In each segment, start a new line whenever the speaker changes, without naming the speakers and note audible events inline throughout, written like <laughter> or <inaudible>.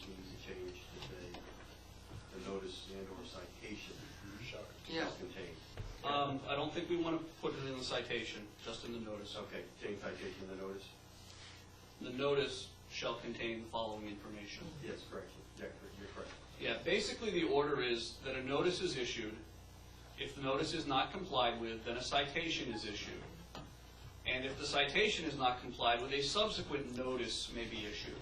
page that they, the notice and or citation
Yeah.
is contained.
Um, I don't think we want to put it in the citation, just in the notice.
Okay, contain citation in the notice?
The notice shall contain the following information.
Yes, correct, yeah, correct, you're correct.
Yeah, basically the order is that a notice is issued. If the notice is not complied with, then a citation is issued. And if the citation is not complied with, a subsequent notice may be issued.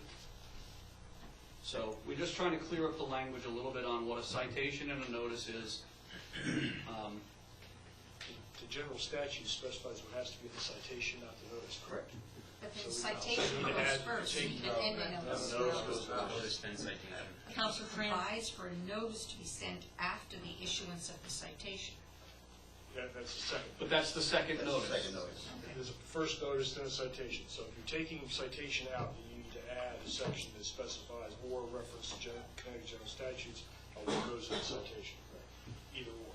So we're just trying to clear up the language a little bit on what a citation and a notice is. Um,
The general statute specifies what has to be in the citation, not the notice.
Correct.
But
So
the
we-
citation
so we
goes
add-
first,
take
and
out
then
that-
the
that
notice
notice goes
goes
out.
first. Council provides for a notice to be sent after the issuance of the citation.
That, that's the second.
But that's the second
That's the
notice.
Second notice.
There's a first notice, then a citation. So if you're taking citation out, you need to add a section that specifies or reference to gen- Connecticut general statutes on what goes in the citation. Either or.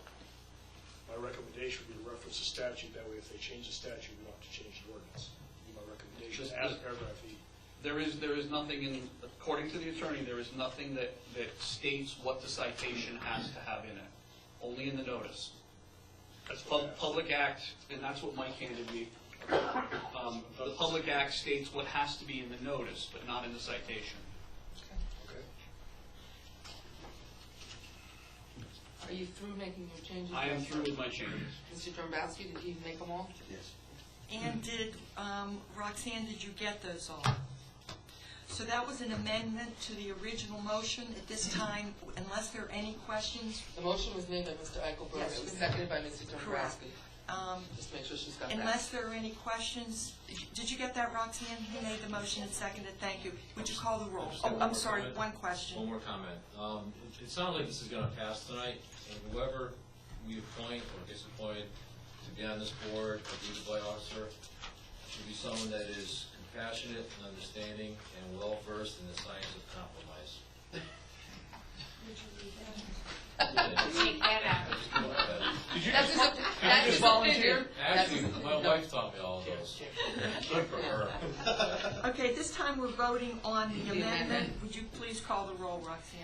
My recommendation would be to reference the statute, that way if they change the statute, we don't have to change the ordinance. My recommendation,
Just-
add paragraph E.
There is, there is nothing in, according to the attorney, there is nothing that, that states what the citation has to have in it, only in the notice.
That's what I
Pub-
asked.
Public Act, and that's what Mike handed me, um, the Public Act states what has to be in the notice, but not in the citation.
Okay.
Are you through making your changes?
I am through with my changes.
Mr. Dombrowski, did you make them all?
Yes.
And did, um, Roxanne, did you get those all? So that was an amendment to the original motion. At this time, unless there are any questions,
The motion was made by Mr. Eichelberg,
Yes.
it was seconded by Mr.
Correct.
Dombrowski.
um,
Just make sure she's got that.
unless there are any questions, did you get that, Roxanne? Who made the motion and seconded? Thank you. Would you call the roll? Oh, I'm sorry, one
One
question.
more comment. Um, it- It sounds like this is going to pass tonight, and whoever we appoint or disappoint to be on this board, a duty by officer, should be someone that is compassionate and understanding and well-versed in the science of compromise. <laughs>
You take that out.
Yeah.
Did you
That's
just,
his, op- that's his opinion. That's
Actually,
his-
my
no.
wife taught me all of
Cheers,
those.
cheers.
Good for her.
Okay, at this time, we're voting on the
The amendment.
amendment. Would you please call the roll, Roxanne?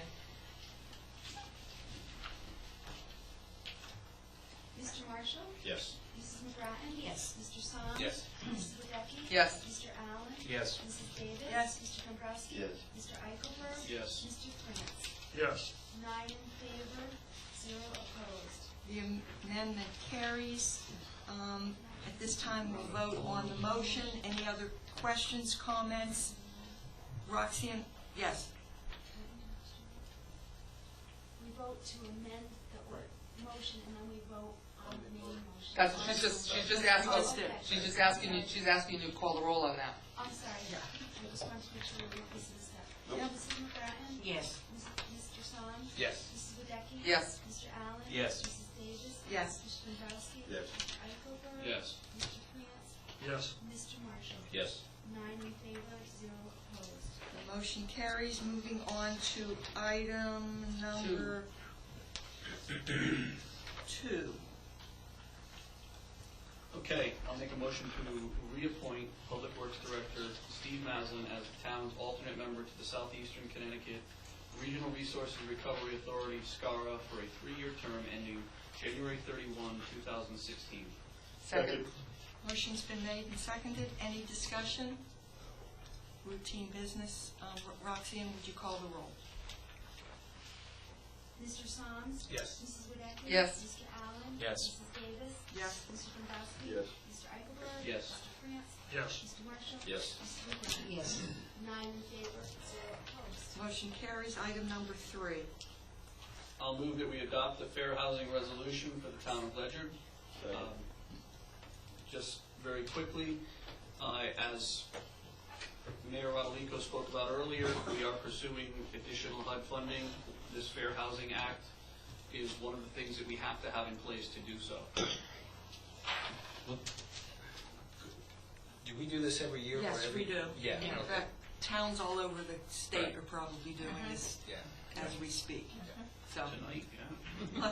Mr. Marshall?
Yes.
Mrs. McGrattan?
Yes.
Mr. Song?
Yes.
Mrs. Wadecki?
Yes.
Mr. Allen?
Yes.
Mrs. Davis?
Yes.
Mr. Dombrowski?
Yes.
Mr. Eichelberg?
Yes.
Mr. France?
Yes.
Nine in favor, zero opposed.
The amendment carries. Um, At this time, we'll vote on the motion. Any other questions, comments? Roxanne, yes.
We vote to amend the or- motion, and then we vote on the main motion.
That's, she's just, she's just
Oh,
asking,
okay.
she's just asking you, she's asking you to call the roll on that.
I'm sorry, I just wanted to make sure we were pieces of that.
Nope.
Mrs. McGrattan?
Yes.
Mr. Song?
Yes.
Mrs. Wadecki?
Yes.
Mr. Allen?
Yes.
Mrs. Davis?
Yes.
Mr. Dombrowski?
Yes.
Mr. Eichelberg?
yes.
Mr. France?
Yes.
Mr. Marshall?
Yes.
Nine in favor, zero opposed.
The motion carries. Moving on to item number two.
Okay, I'll make a motion to reappoint Public Works Director Steve Maslin as the town's alternate member to the Southeastern Connecticut Regional Resources Recovery Authority, SCARA, for a three-year term ending January 31, 2016.
Second.
Motion's been made and seconded. Any discussion? Routine business. Um, Ro- Roxanne, would you call the roll?
Mr. Soms?
Yes.
Mrs. Wadecki?
Yes.
Mr. Allen?
Yes.
Mrs. Davis?
Yes.
Mr. Dombrowski?
Yes.
Mr. Eichelberg?
Yes.
Mr. France?
Yes.
Mr. Marshall?
Yes.
Mrs. Wadecki?
Yes.
Nine in favor, zero opposed.
Motion carries. Item number three.
I'll move that we adopt the fair housing resolution for the town of Ledger.
Second.
Um, Just very quickly, uh, as Mayor Rodolico spoke about earlier, we are pursuing additional HUD funding. This Fair Housing Act is one of the things that we have to have in place to do so.
Do we do this every year? for
Yes,
every-
we do.
Yeah,
In
okay.
fact, towns all over the state are probably doing this
Yeah.
as we speak. So,
Tonight, yeah?